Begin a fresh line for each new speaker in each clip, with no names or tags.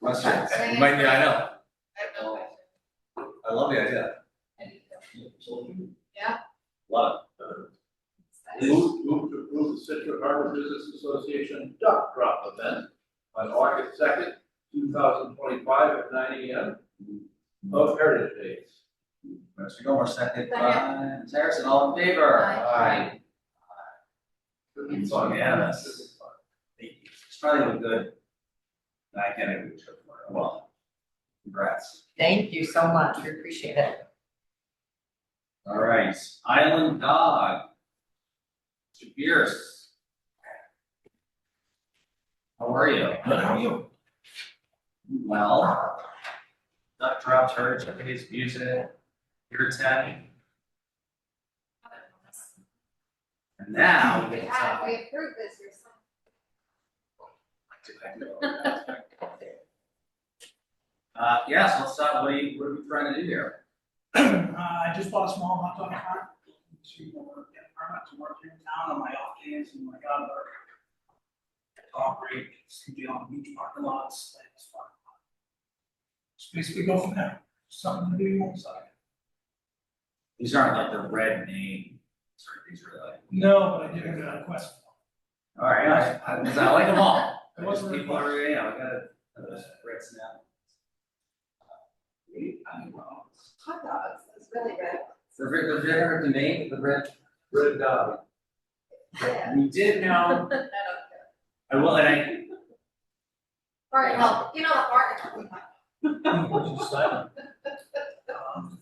Must
Right.
have. You might, yeah, I know,
I have no question.
I love the idea.
Yeah.
Lot. Uh, Move, move to approve the Citrus Harbor Business Association duck drop event on August second, two thousand twenty-five at nine AM of Heritage Days.
Mr. Gilmore, second by Harrison, all in favor?
Aye. Should be fun.
Unanimous.
Should be fun.
Thank you. It's probably look good. I can't even trip for it, well, congrats.
Thank you so much, we appreciate it.
All right, Island Dog. Mr. Pierce. How are you?
How are you?
Well. Duck Drop Church, I think it's music, your tech, and now we can
Yeah,
talk.
we approved this or something.
Uh, yes, let's talk, what are you, what are we trying to do here?
Uh, I just bought a small hot dog cart. To get a permit to work here in town on my off days and my God, work. Operate, be on beach parking lots, like this parking lot. So basically go from there, something to do on the side.
These aren't like the red name, sort of these are like,
No, but I did have a request.
all right, I, I, 'cause I like them all.
It wasn't
People
really-
are, yeah, I gotta, uh, red snap. I mean, well,
Hot dogs, that's really good.
The red, the red, the name, the red,
Red dog.
Yeah.
we did know,
I don't care.
I will, and I,
Barton Health, you know, Barton Health.
Which is silent.
Um,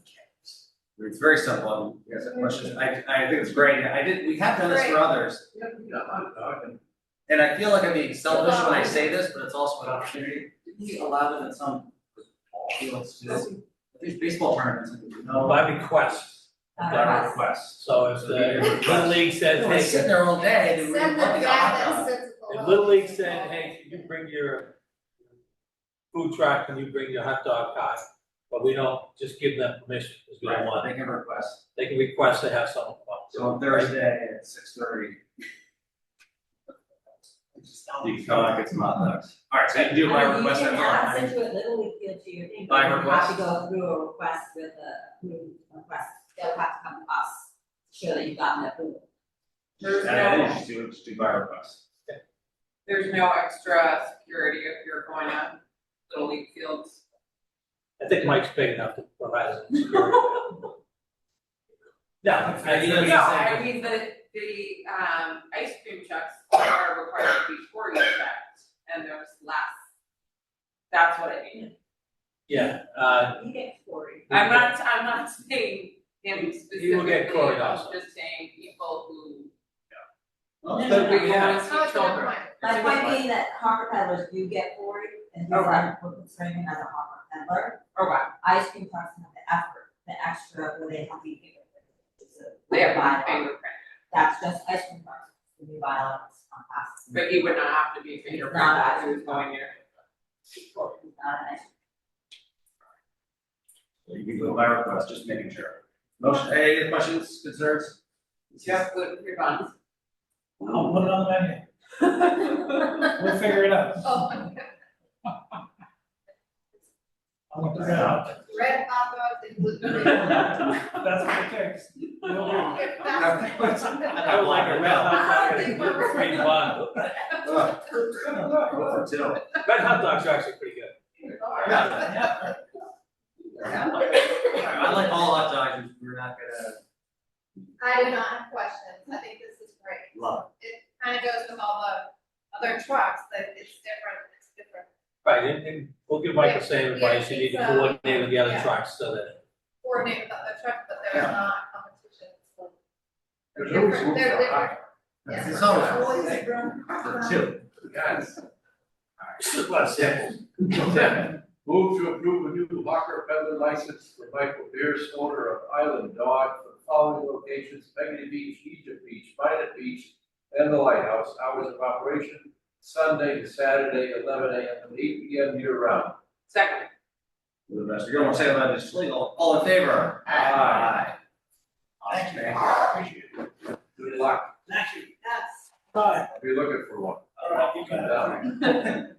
it's very simple, you guys have questions, I, I think it's great, I did, we have done this for
Great.
others.
Yeah, you know, hot dog and
And I feel like I'm being selfish when I say this, but it's also an opportunity. Didn't we allow them at some ball fields to do? These baseball tournaments, no.
Uh,
By Oh, request, by
Uh,
request, so if the Little League says,
They're sitting
hey,
there all day, they were
Send them
looking at
back
hot
that
dogs.
sensible.
the Little League said, hey, can you bring your food truck, and you bring your hot dog cart? But we don't just give them permission, because we don't want,
They can request,
they can request to have someone come up.
so on Thursday at six thirty. You can come and get some hot dogs. Alright, so you can do my request at
Uh, You can
home.
add, send you a little league field to your thing,
By
but you have
request?
to go through a request with a, through a request, they'll have to come to us, to show that you've gotten approval.
There's
And I think you
no,
should do, just do by request.
there's no extra security if you're going on Little League fields.
I think Mike's big enough to provide some security. No, I mean,
No, I mean, the, the, um, ice cream checks are required to be for you checked, and there's less. That's what I mean.
yeah, uh,
You get Cory.
I'm not, I'm not saying him specifically,
You will get quoted
I'm
also.
just saying people who.
Well,
No, no,
but
no,
we
no.
have-
It's not children.
My point being that hawker peddlers do get Cory, and he's like, we're considering another hawker peddler,
Or what?
ice cream trucks have the effort, the extra, where they have to be.
They have
bylaw.
one fingerprint,
That's just ice cream trucks, the new bylaw, it's not passed.
but he would not have to be fingerprinted if he was going there.
It's not an ice
You can do by request, just making sure. Motion, any other questions, concerns?
Just food for buns.
I'll put it on the menu, we'll figure it out.
Oh, my God.
I'll look it out,
red hot dogs and gluten-free.
that's what it takes. We'll do.
If that's-
I
I would like a red hot dog and a gluten-free bun.
Go for two.
Red hot dogs are actually pretty good.
I like all hot dogs, we're not gonna
I do not have questions, I think this is great.
love.
It kind of goes with all the other trucks, that it's different, it's different.
Right, and, and we'll give Mike the same advice, you need to coordinate with the other trucks so that.
Coordinate with other trucks, but
Yeah.
there's not competition. so
there's always room
They're
for a hot
Yeah.
It's always-
Always room.
For two.
Guys.
Just a lot of samples.
Ten, move to approve a new hawker peddler license for Michael Beers, owner of Island Dog, for the following locations, Peggy Beach, Egypt Beach, Minot Beach, and the Lighthouse, hours of operation, Sunday to Saturday, eleven AM to eight PM year round.
Second.
With the best, you're gonna say that it's legal, all in favor? Aye.
Thank you. Appreciate it.
Good luck,
Thank you.
That's.
Bye.
I'll be looking for one.
uh,
All right, you got it.
Down.